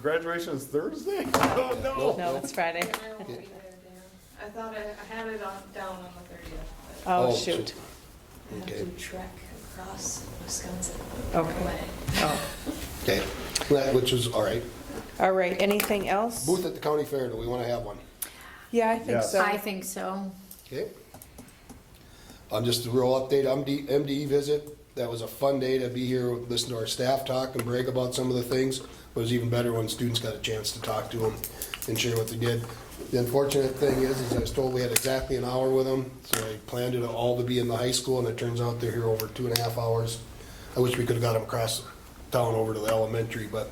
graduation is Thursday? Oh, no. No, it's Friday. I won't be there, Dan. I thought I, I had it on, down on the thirtieth, but Oh, Oh, shoot. I have Okay. to trek across Wisconsin. Okay. Way. Oh. Okay, That- which is, all right. All right, anything else? Booth at the county fair, do we want to have one? Yeah, I think Yes. so. I think so. Okay. Um, just a real update, MD, MDE E visit, that was a fun day to be here, listen to our staff talk and brag about some of the things. It was even better when students got a chance to talk to them and share what they did. The unfortunate thing is, is I was told we had exactly an hour with them, so I planned it all to be in the high school, and it turns out they're here over two and a half hours. I wish we could've got them across town over to the elementary, but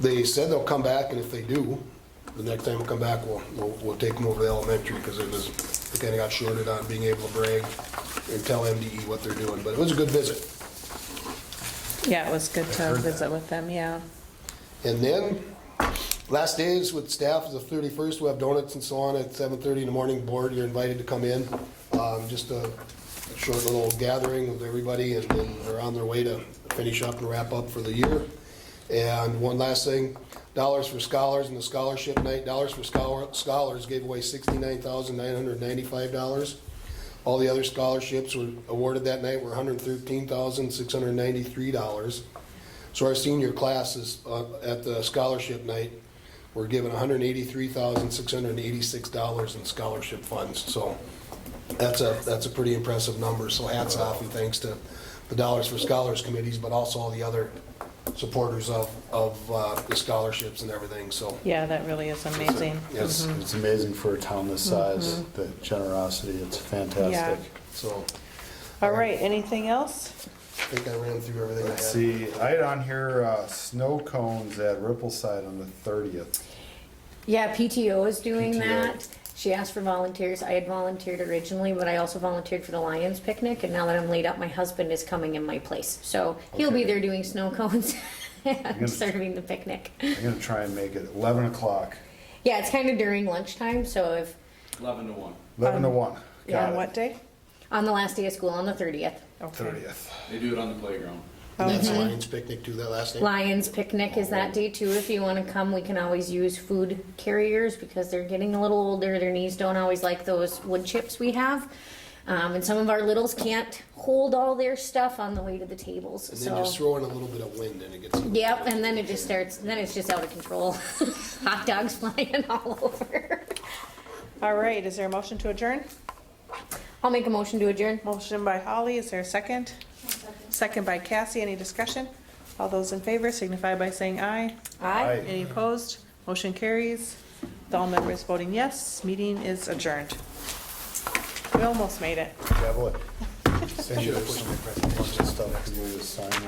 they said they'll come back, and if they do, the next time we come back, we'll, we'll, we'll take them over to the elementary, because it was, they kinda got shorted on being able to brag and tell MDE what they're doing, but it was a good visit. Yeah, it was good to visit with them, yeah. And then, last days with staff is the thirty-first, we have donuts and so on at seven-thirty in the morning, board, you're invited to come in. Um, just a short little gathering with everybody, and then they're on their way to finish up and wrap up for the year. And one last thing, Dollars for Scholars and the Scholarship Night, Dollars for Scholar- Scholars gave away sixty-nine thousand nine hundred ninety-five dollars. All the other scholarships were awarded that night were hundred thirteen thousand six hundred ninety-three dollars. So our senior classes uh, at the scholarship night were given $183,686 in scholarship funds. So that's a, that's a pretty impressive number. So hats off and thanks to the Dollars for Scholars committees, but also all the other supporters of, of uh, the scholarships and everything, so. Yeah, that really is amazing. Yes, Mm-hmm. It's amazing for a town this size, Mm-hmm. the generosity, it's fantastic. so All right, anything else? I think I ran through everything I had. Let's see, I had on here, uh, snow cones at Rippleside on the thirtieth. Yeah, PTO is doing PTO. that. She asked for volunteers. I had volunteered originally, but I also volunteered for the Lions picnic, and now that I'm laid up, my husband is coming in my place. So he'll be Okay. there doing snow cones gonna- and serving the picnic. I'm gonna try and make it eleven o'clock, Yeah, it's kind of during lunchtime, so if, Eleven to one. eleven to one. On Um, what day? on the last day of school, on the thirtieth. Okay. Thirtieth. They do it on the playground. And that's Mm-hmm. Lions Picnic too, that last name? Lions picnic is that day too. If you wanna come, we can always use food carriers because they're getting a little older. Their knees don't always like those wood chips we have. Um, and some of our littles can't hold all their stuff on the way to the tables, And then just so. throw in a little bit of wind and it gets. Yep, and then it just starts, then it's just out of control. Hot dogs flying all over. All right, is there a motion to adjourn? I'll make a motion to adjourn. Motion by Holly, is there a second? Second by Cassie, any discussion? All those in favor signify by saying aye. Aye. Any opposed? Motion carries. With All members voting yes, meeting is adjourned. We almost made it. Devil, Send you some stuff, 'cause you need to sign